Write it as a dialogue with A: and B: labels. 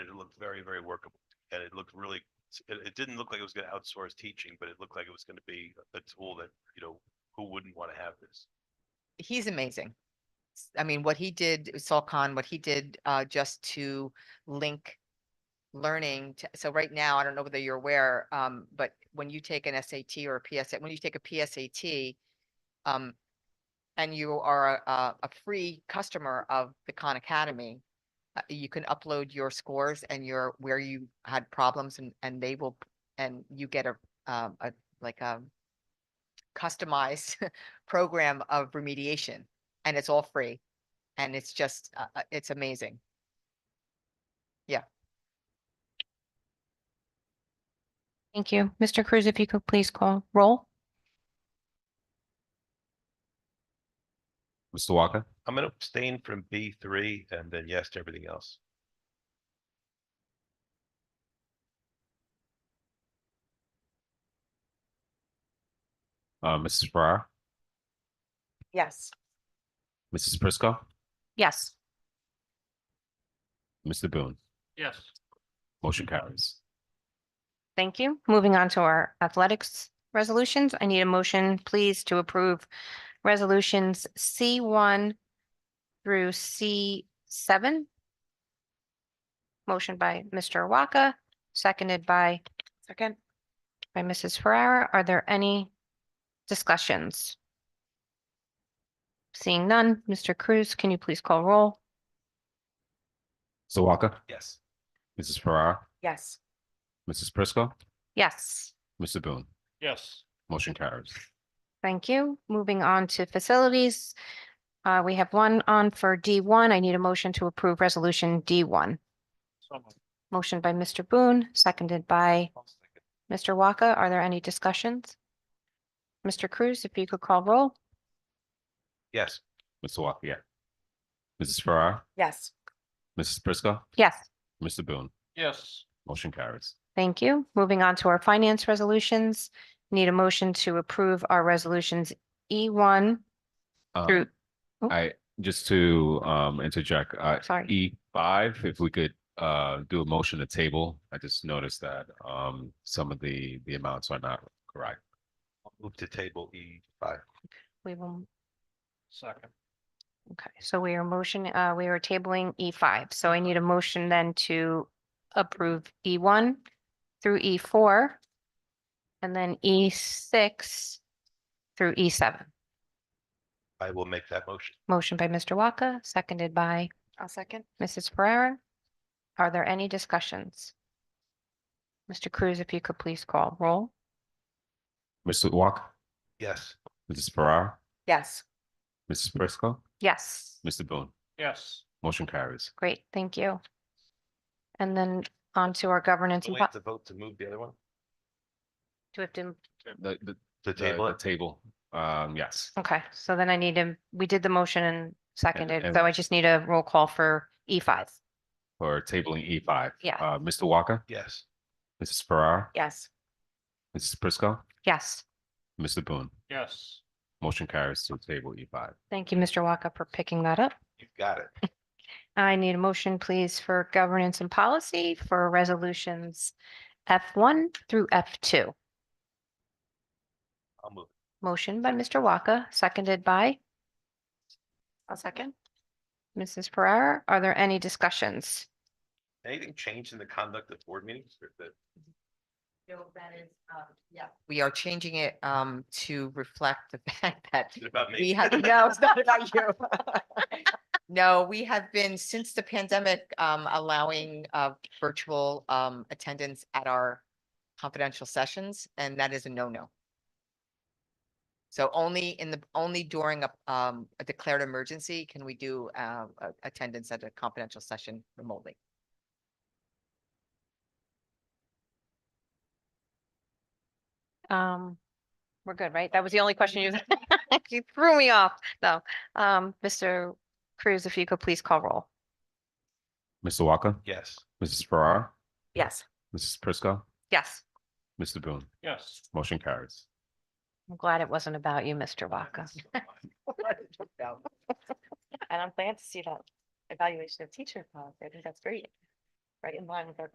A: looked very, very workable. And it looked really, it, it didn't look like it was gonna outsource teaching, but it looked like it was gonna be a tool that, you know, who wouldn't want to have this?
B: he's amazing. S- I mean, what he did, Saul Khan, what he did uh just to link learning to, so right now, I don't know whether you're aware, um, but when you take an SAT or a PSAT, when you take a PSAT, um, and you are a, a- a free customer of the Khan Academy, uh, you can upload your scores and your, where you had problems and, and they will, p- and you get a, um, a, like a customized program of remediation and it's all free. And it's just, uh, uh, it's amazing.
C: Thank you. Mr. Cruz, if you could please call roll.
D: Mr. Walker,
A: I'm gonna abstain from B three and then yes to everything else.
D: uh, Mrs. Farrar,
B: Yes.
D: Mrs. Prisco,
C: Yes.
D: Mr. Boone,
E: yes,
D: motion carries.
C: Thank you. Moving on to our athletics resolutions. I need a motion, please, to approve resolutions C one through C seven. Motion by Mr. Waka, seconded by
B: Second.
C: by Mrs. Ferrara. Are there any discussions? Seeing none, Mr. Cruz, can you please call roll?
D: Mr. Walker,
A: Yes.
D: Mrs. Farrar,
B: Yes.
D: Mrs. Prisco,
C: Yes.
D: Mr. Boone,
E: yes,
D: motion carries.
C: Thank you. Moving on to facilities. Uh, we have one on for D one. I need a motion to approve resolution D one.
E: so moved.
C: Motion by Mr. Boone, seconded by Mr. Waka. Are there any discussions? Mr. Cruz, if you could call roll?
A: Yes,
D: Mr. Walker, yeah. Mrs. Farrar,
B: Yes.
D: Mrs. Prisco,
C: Yes.
D: Mr. Boone,
E: yes,
D: motion carries.
C: Thank you. Moving on to our finance resolutions. Need a motion to approve our resolutions E one
D: Um,
C: through,
D: I, just to um interject, uh,
C: sorry,
D: E five, if we could uh do a motion to table. I just noticed that um some of the the amounts are not correct.
A: I'll move to table E five.
C: we will,
E: second,
C: okay, so we are motion, uh, we are tabling E five. So I need a motion then to approve E one through E four. And then E six through E seven.
A: I will make that motion.
C: Motion by Mr. Waka, seconded by
B: I'll second.
C: Mrs. Pereira. Are there any discussions? Mr. Cruz, if you could please call roll.
D: Mr. Walker,
A: Yes,
D: Mrs. Farrar,
B: Yes.
D: Mrs. Prisco,
C: Yes,
D: Mr. Boone,
E: yes,
D: motion carries.
C: great, thank you. And then on to our governance.
A: do
C: and
A: we
C: po-
A: have to vote to move Oh, the other one?
C: Do we have to-
D: The the
A: To
D: the-
A: table
D: the
A: it?
D: Table, um, yes.
C: Okay, so then I need to, we did the motion and seconded,
D: and-
C: so I just need a roll call for E five.
D: For tabling E five.
C: Yeah.
D: Uh, Mr. Walker,
A: Yes,
D: Mrs. Farrar,
B: Yes.
D: Mrs. Prisco,
C: Yes,
D: Mr. Boone,
E: yes,
D: motion carries to table E five.
C: thank you, Mr. Waka, for picking that up.
A: you've got it.
C: I need a motion, please, for governance and policy for resolutions F one through F two.
A: I'll move.
C: Motion by Mr. Waka, seconded by
B: I'll second.
C: Mrs. Pereira. Are there any discussions?
A: Anything changed in the conduct of board meetings or the?
B: Yeah. We are changing it um to reflect the fact that
A: Is it about
B: we
A: me?
B: have, no, it's not about you. No, we have been, since the pandemic, um allowing uh virtual um attendance at our confidential sessions, and that is a no-no. So only in the, only during a um a declared emergency can we do uh a- attendance at a confidential session remotely.
C: Um, we're good, right? That was the only question you, you threw me off, No, Um, Mr. Cruz, if you could please call roll.
D: Mr. Walker,
A: Yes,
D: Mrs. Farrar,
B: Yes.
D: Mrs. Prisco,
C: Yes,
D: Mr. Boone,
E: yes,
D: motion carries.
C: I'm glad it wasn't about you, Mr. Vaca. And I'm glad to see that evaluation of teacher policy. I think that's great. right in line with our